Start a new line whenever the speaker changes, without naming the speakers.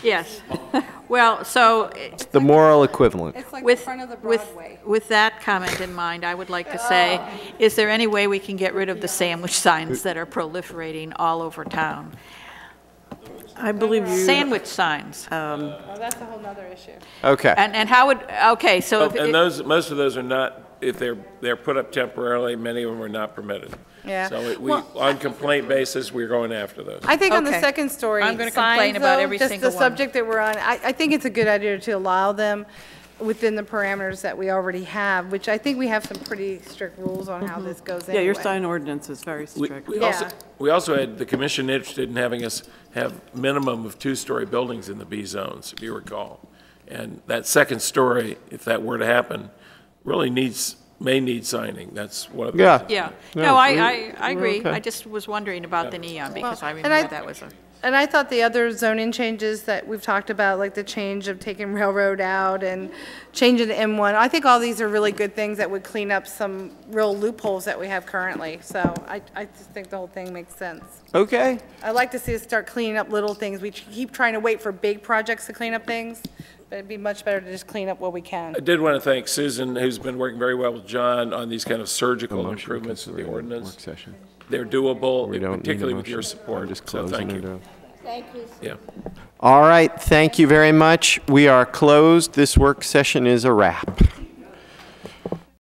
Yes. Well, so
The moral equivalent.
It's like the
with,
front of the
with,
Broadway.
with that comment in mind, I would like to say, is there any way we can get rid of the sandwich signs that are proliferating all over town?
I believe you,
Sandwich signs.
Oh, that's a whole nother issue.
Okay.
And, and how would, okay, so if,
Oh, And
it-
those, most of those are not, if they're, they're put up temporarily, many of them are not permitted.
Yeah.
So it- we,
Well,
on complaint basis, we're going after those.
I think on the
Okay.
second story
I'm gonna
signs,
complain about
though,
every
just
single
the
one.
subject that we're on, I, I think it's a good idea to allow them within the parameters that we already have, which I think we have some pretty strict rules on
Mm-hmm.
how this goes
yeah,
anyway.
your sign ordinance is very
We-
strict.
We also,
Yeah.
we also had the commission interested in having us have minimum of two-story buildings in the B zones, if you recall. And that second story, if that were to happen, really needs, may need signing. That's one of the.
Yeah.
yeah.
No,
No, I,
we-
I, I agree.
okay.
I just was wondering about the neon because I
Well, and I-
remember that was a.
And I thought the other zoning changes that we've talked about, like the change of taking railroad out and changing to M1, I think all these are really good things that would clean up some real loopholes that we have currently. So I, I just think the whole thing makes sense.
Okay.
I'd like to see us start cleaning up little things. We keep trying to wait for big projects to clean up things, but it'd be much better to just clean up what we can.
I did want to thank Susan, who's been working very well with John on these kind of surgical improvements to the
Work
ordinance.
session.
They're doable,
We don't need a
particularly with your
motion. I'm
support.
just
So
closing
thank
it
you.
up.
Yeah.
All right, thank you very much. We are closed. This work session is a wrap.